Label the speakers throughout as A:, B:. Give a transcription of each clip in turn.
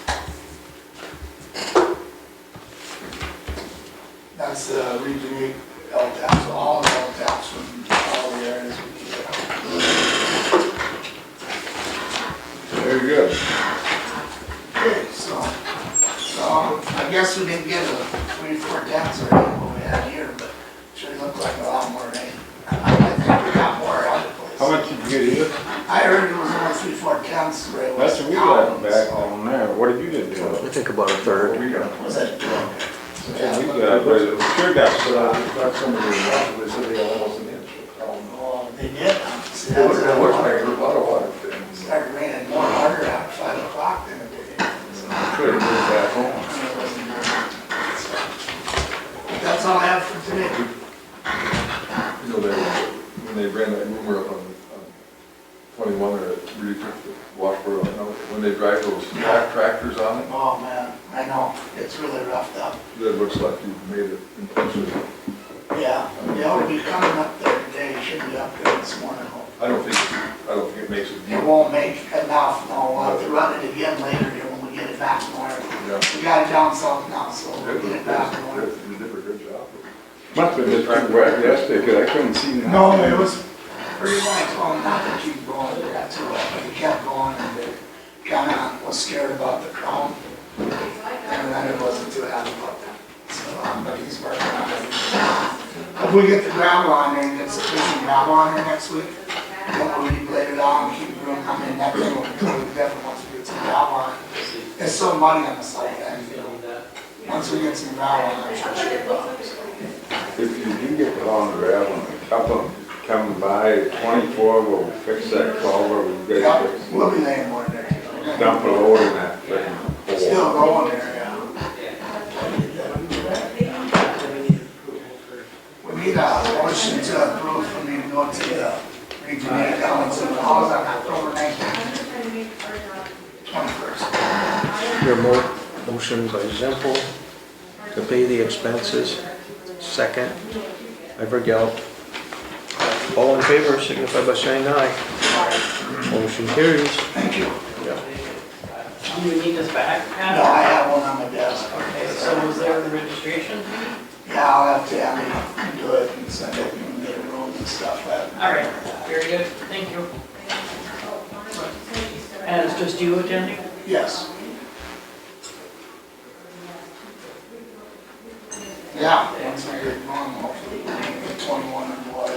A: uh, I heard it was only three, four tenths where it was
B: Lester, we got back
A: town,
B: on there, what did you get do?
C: I think about a third.
D: We got,
A: so Was it?
B: We
A: Yeah.
B: got, but it sure got
D: but uh,
B: shot.
D: I got some of the, they said they had almost an inch. Um,
A: Oh, they did. See, that's
D: It looked, it looked like
A: why
D: a lot of water things.
A: it started raining more harder at five o'clock than it did.
D: Could have moved back home.
A: That's all I have for today.
D: You know, they, when they ran that rumor up on, on twenty-one or really took the Washboro, you know, when they drive those track tractors on it,
A: Oh, man, I know, it's really roughed up.
D: that looks like you've made it intentionally.
A: Yeah, they ought to be coming up there today, should be up there this morning.
D: I don't think, I don't think it makes a
A: It
D: deal.
A: won't make enough, no, we'll have to run it again later here when we get it back north. We got it down south now, so we'll get it back north.
D: You did a good job.
B: Must have been too wet yesterday, cause I couldn't see nothing.
A: No, it was pretty much, well, not that you going there, that's all, but we kept going and it kinda was scared about the crown. And then it wasn't too happy about that, so, um, but he's working on it. If we get the gravel on there, it's sufficient gravel on there next week, then we'll be later on, keep room, I mean, that thing will, we definitely want to get some gravel on. It's so muddy on the site, and, you know, once we get some gravel on, I'm sure she'll go.
B: If you do get on gravel, a couple come by, twenty-four will fix that culvert, we got
A: Yeah,
B: to fix.
A: we'll be laying more there. too. We're gonna-
B: Dump a load in that freaking hole.
A: Still going there, yeah. We need a motion to approve for me to go to the Regent Council, how's on October nineteenth, twenty-first?
C: Your mo- motion by Zempel to pay the expenses, second by Vergel. All in favor, signify by saying aye. Motion carries.
A: Thank you.
E: Do you need this back?
A: No, I have one on my desk.
E: Okay, so was there the registration?
A: Yeah, I'll have to, I mean, do it and send it and get it rolled and stuff, but.
E: All right, very good, thank you. And it's just you attending?
A: Yes. Yeah, once we get going, hopefully, we'll get twenty-one and what.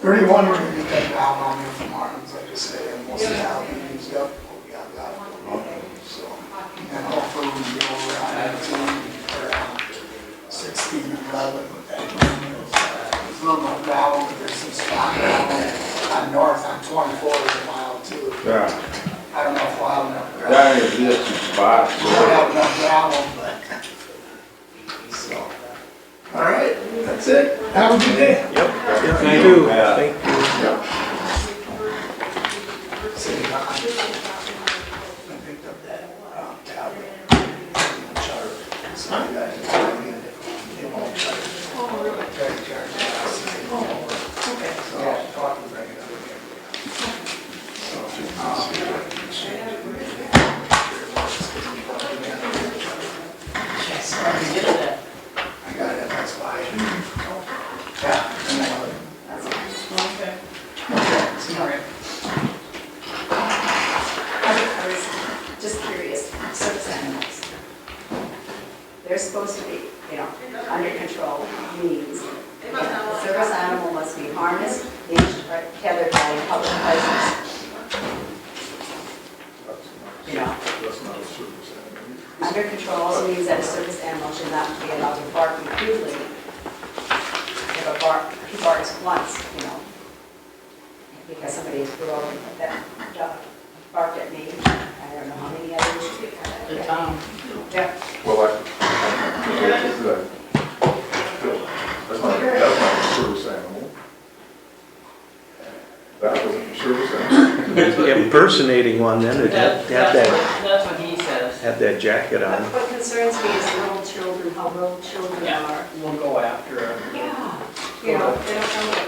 A: Thirty-one, we're gonna get that down on here from Martin's, like I say, and we'll see how we use up, what we got left, so. And hopefully, we can go around nineteen, around sixteen and eleven with that. There's a little more gravel, but there's some spot gravel on north on twenty-four is a mile too.
B: Yeah,
A: I don't know if we'll have enough gravel.
B: that is just a spot.
A: We don't have enough gravel, but, so, all right, that's it. Have a good day.
C: Yep. Thank
B: Thank
C: you.
B: you, Pat.
C: Thank you.
A: See you, Don. I picked up that um, tablet. and charger. So I got it. I mean, It won't charge. Try to charge it. I said, it won't work. So I'll talk and bring it up again. So, um,
E: Yes. I did that.
A: I got it, that's why. Yeah. and I love it.
E: Okay.
A: Okay, so-
E: All right.
F: I was just curious, service animals. They're supposed to be, you know, under control means that the service animal must be harnessed, leashed, or tethered by a public license,
D: That's
F: you
D: not,
F: know.
D: that's not a service animal.
F: Under control also means that a service animal should not be allowed to bark repeatedly. If a bark, he barks once, you know, because somebody threw over that dog barked at me, I don't know how many
E: The
F: others.
E: town.
F: Yeah.
D: Well, I, that's not, that's not a service animal. That was a service animal.
C: Impersonating one then, it had had
E: That- That's
C: that,
E: what- that's what he says.
C: had that jacket on.
F: What concerns me is little children, how little children
E: Yeah,
F: are.
E: we'll go after him.
F: Yeah. You know, they don't know what